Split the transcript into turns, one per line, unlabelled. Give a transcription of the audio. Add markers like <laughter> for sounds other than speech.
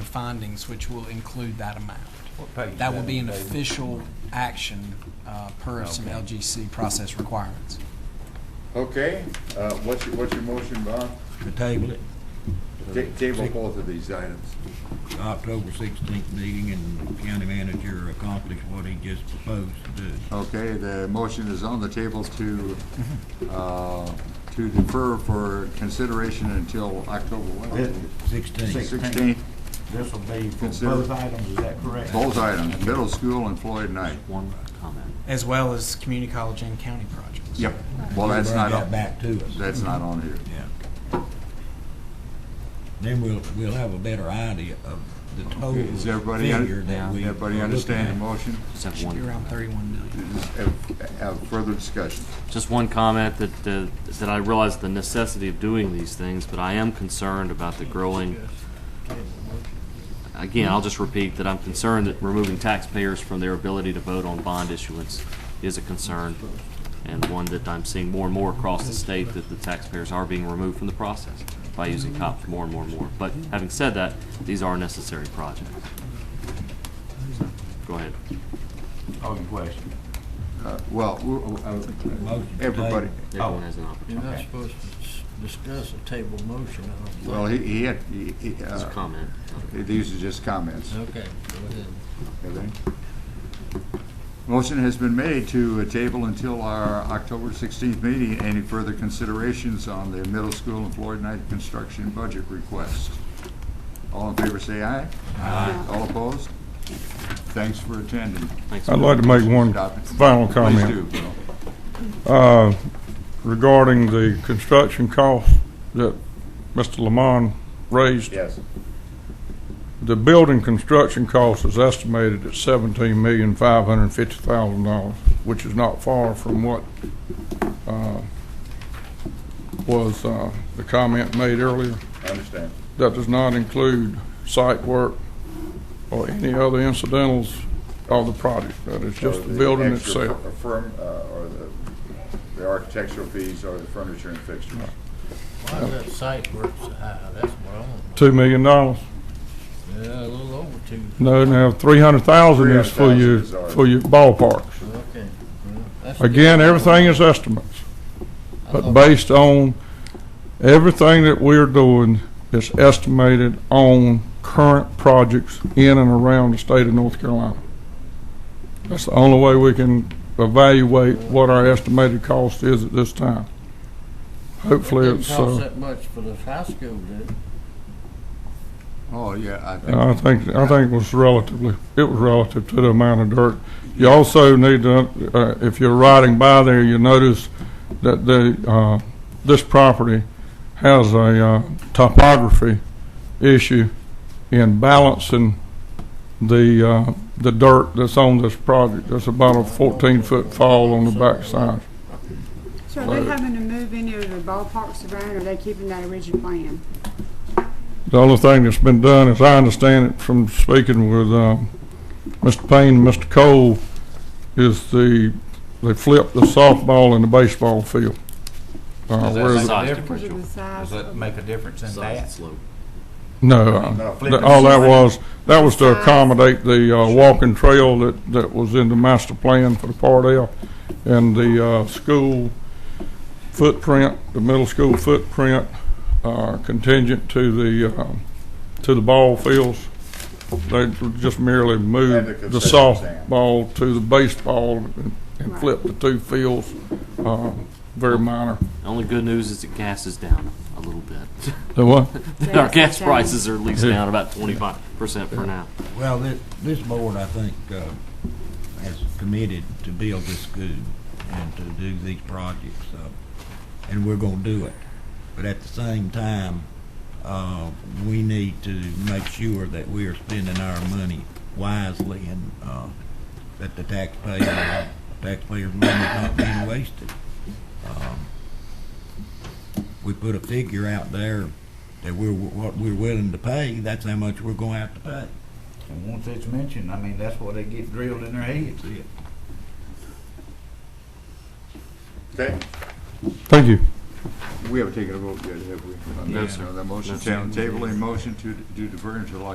findings, which will include that amount.
What page is
That will be
on,
an
David?
official action uh, per some
Okay.
LGC process requirements.
Okay, uh, what's your, what's your motion, Bob?
to table it,
Ta- Table both of these items.
to October sixteenth meeting, and the county manager accomplish what he just proposed to do.
Okay, the motion is on the table to, uh, to defer for consideration until October what?
Sixteenth,
Sixteenth,
This will be for
Consider-
both items, is that correct?
both items, middle school and Floyd Knight.
One comment.
As well as community college and county projects.
Yep. Well, that's not,
Bring that
on-
back to us.
that's not on here.
Yeah. Then we'll, we'll have a better idea of the total
Okay, Does everybody, un-
figure that we.
everybody
are looking
understand the
at.
motion?
Just have
Should be
one,
around 31 million.
Does- Have have further discussion.
just one comment that, uh, that I realize the necessity of doing these things, but I am concerned about the growing. Again, I'll just repeat that I'm concerned that removing taxpayers from their ability to vote on bond issuance is a concern. And one that I'm seeing more and more across the state, that the taxpayers are being removed from the process by using COP more and more and more. But having said that, these are necessary projects. Go ahead.
Oh, your question.
Uh, Well, w- uh,
Motion to
everybody,
table.
Everyone has an opportunity.
You're not
Okay.
supposed to s- discuss a table motion, I don't think.
well, he, he had, he- he,
Just a
uh,
comment.
these are just comments.
Okay, go ahead.
Okay. Motion has been made to uh, table until our October 16th meeting, any further considerations on the middle school and Floyd Knight construction budget request. All in favor, say aye. Aye. All opposed? Thanks for attending.
Thanks.
I'd like to make one
Stop it.
final
Please
comment
do, Bill.
uh, regarding the construction costs that Mr. Lamont raised.
Yes.
The building construction cost is estimated at seventeen million, five hundred and fifty thousand dollars, which is not far from what uh, was uh, the comment made earlier.
I understand.
That does not include site work or any other incidentals of the project. That is just
Or
the building
extra
itself.
fir- Firm, uh, or the, the architectural fees or the furniture and fixtures.
Why is that site work so high? That's what I want to
Two million dollars.
know. Yeah, a little over two.
No, now, three hundred thousand is for
300,000
your,
is ours.
for your ballparks.
Okay. well, that's
Again,
good.
everything is estimates,
I
but
thought-
based on, everything that we're doing is estimated on current projects in and around the state of North Carolina. That's the only way we can evaluate what our estimated cost is at this time. Hopefully,
Didn't
it's,
cost
uh,
that much for the high school, did it?
Oh, yeah, I think.
I think, I think it was relatively, it was relative to the amount of dirt. You also need to, uh, if you're riding by there, you notice that the, uh, this property has a, uh, topography issue in balancing the, uh, the dirt that's on this project. There's about a fourteen-foot fall on the backside.
So are they having to move any of the ballparks around, or are they keeping that original plan?
The only thing that's been done, as I understand it from speaking with, um, Mr. Payne and Mr. Cole, is the, they flipped the softball and the baseball field. Uh,
Is that
where
like
the-
a
Size
difference?
Because of
differential.
the size
Does
<laughs>
of
that make a difference in
Size and
that?
slope.
No, uh,
Flip
that-
it.
all that was, that was to accommodate the, uh, walking trail that, that was in the master plan for the Part L and the, uh, school footprint, the middle school footprint, uh, contingent to the, um, to the ball fields. They just merely
And the
moved the
concession stand.
softball to the baseball and- and
Right.
flipped the two fields, uh, very minor.
The Only good news is that gas is down a little bit.
The
<laughs>
what?
Our
Gas
gas
is down.
prices are at least down about twenty-five percent for now.
Well, this, this board, I think, uh, has committed to build this school and to do these projects, uh, and we're gonna do it. But at the same time, uh, we need to make sure that we are spending our money wisely and, uh, that the taxpayer, taxpayer's money is not being wasted. Um, We put a figure out there that we're, what we're willing to pay, that's how much we're gonna have to pay.
And once it's mentioned, I mean, that's what they get drilled in their heads.
Okay,
Thank you.
we haven't taken a vote yet, have we? On
No,
that-
sir.
on that
No,
motion,
sir.
table a motion to, to defer until